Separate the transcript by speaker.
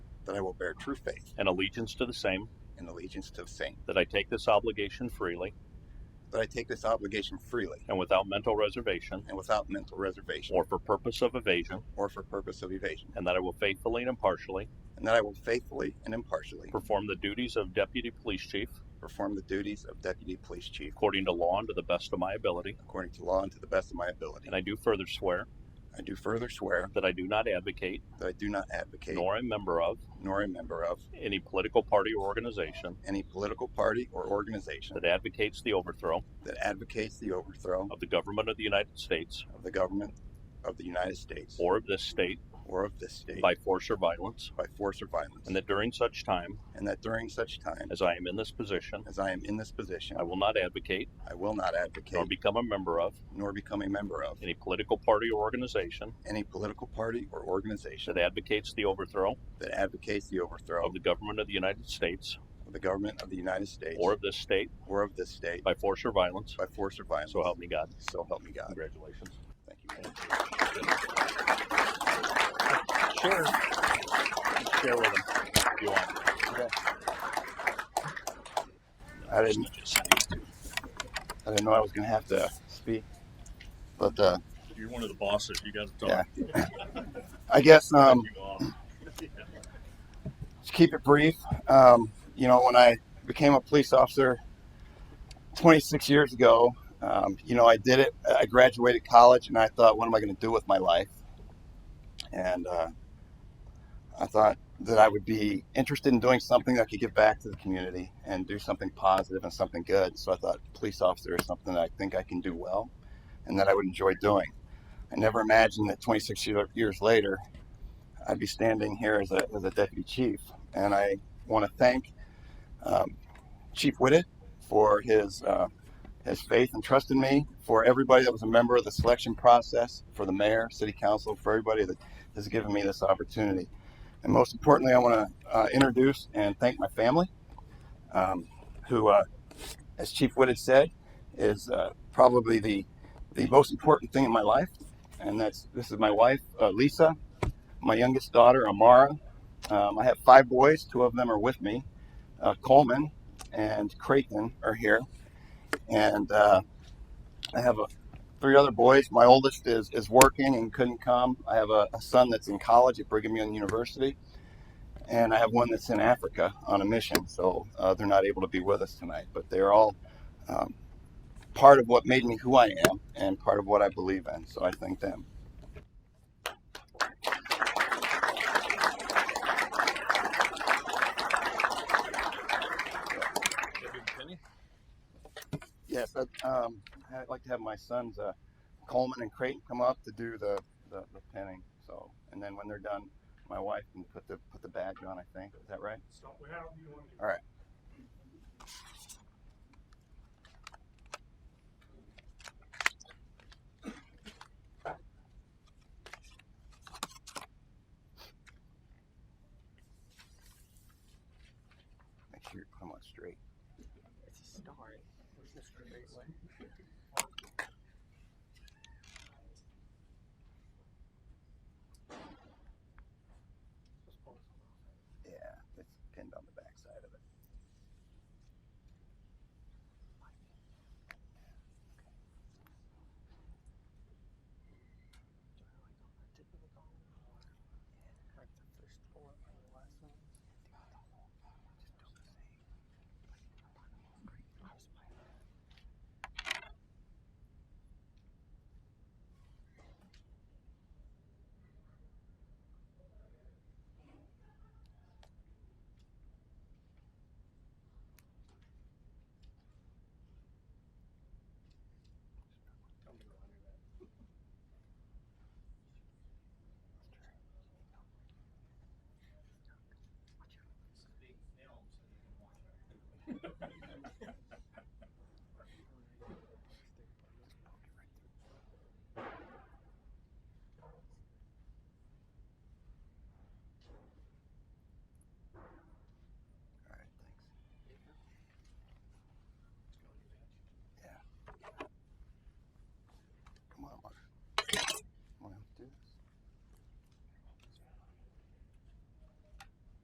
Speaker 1: that I will bear true faith
Speaker 2: and allegiance to the same,
Speaker 1: and allegiance to the same,
Speaker 2: that I take this obligation freely
Speaker 1: that I take this obligation freely
Speaker 2: and without mental reservation
Speaker 1: and without mental reservation
Speaker 2: or for purpose of evasion,
Speaker 1: or for purpose of evasion,
Speaker 2: and that I will faithfully and impartially
Speaker 1: and that I will faithfully and impartially
Speaker 2: perform the duties of Deputy Police Chief
Speaker 1: perform the duties of Deputy Police Chief
Speaker 2: according to law and to the best of my ability.
Speaker 1: according to law and to the best of my ability.
Speaker 2: And I do further swear
Speaker 1: I do further swear
Speaker 2: that I do not advocate,
Speaker 1: that I do not advocate
Speaker 2: nor a member of,
Speaker 1: nor a member of
Speaker 2: any political party or organization
Speaker 1: any political party or organization
Speaker 2: that advocates the overthrow
Speaker 1: that advocates the overthrow
Speaker 2: of the government of the United States
Speaker 1: of the government of the United States
Speaker 2: or of this state
Speaker 1: or of this state
Speaker 2: by force or violence,
Speaker 1: by force or violence,
Speaker 2: and that during such time
Speaker 1: and that during such time
Speaker 2: as I am in this position,
Speaker 1: as I am in this position,
Speaker 2: I will not advocate
Speaker 1: I will not
Speaker 2: nor
Speaker 1: advocate
Speaker 2: become a member of
Speaker 1: nor become a member of
Speaker 2: any political party or organization
Speaker 1: any political party or organization
Speaker 2: that advocates the overthrow
Speaker 1: that advocates the overthrow
Speaker 2: of the government of the United States
Speaker 1: of the government of the United States
Speaker 2: or of this state
Speaker 1: or of this state
Speaker 2: by force or violence.
Speaker 1: by force or violence.
Speaker 2: So help me God.
Speaker 1: So help me God.
Speaker 2: Congratulations.
Speaker 1: Thank you. man.
Speaker 2: Share. Share with them if you want.
Speaker 1: I didn't. I didn't know I was gonna have to speak, but uh,
Speaker 3: You're one of the bosses. You got to
Speaker 1: yeah.
Speaker 3: talk.
Speaker 1: I guess um,
Speaker 3: You off.
Speaker 1: to keep it brief, um, you know, when I became a police officer 26 years ago, um, you know, I did it. I graduated college, and I thought, what am I going to do with my life? And uh, I thought that I would be interested in doing something that I could give back to the community and do something positive and something good. So I thought police officer is something that I think I can do well, and that I would enjoy doing. I never imagined that 26 year- years later, I'd be standing here as a, as a deputy chief. And I want to thank um, Chief Whitted for his, uh, his faith and trust in me, for everybody that was a member of the selection process, for the mayor, city council, for everybody that has given me this opportunity. And most importantly, I want to uh, introduce and thank my family, um, who, uh, as Chief Whitted said, is uh, probably the, the most important thing in my life. And that's this is my wife, uh, Lisa, my youngest daughter, Amara. Um, I have five boys. Two of them are with me. Uh, Coleman and Creighton are here, and uh, I have uh three other boys. My oldest is is working and couldn't come. I have a, a son that's in college at Brigham Young University, and I have one that's in Africa on a mission. So uh, they're not able to be with us tonight, but they're all. Um, part of what made me who I am and part of what I believe in. So I thank them. Yes, I'd, um, I'd like to have my sons, uh, Coleman and Creighton, come up to do the, the, the pinning. So, and then when they're done, my wife can put the put the badge on. I think is that right? All right. Make sure you put them on straight.
Speaker 4: It's a start. Where's the straight way?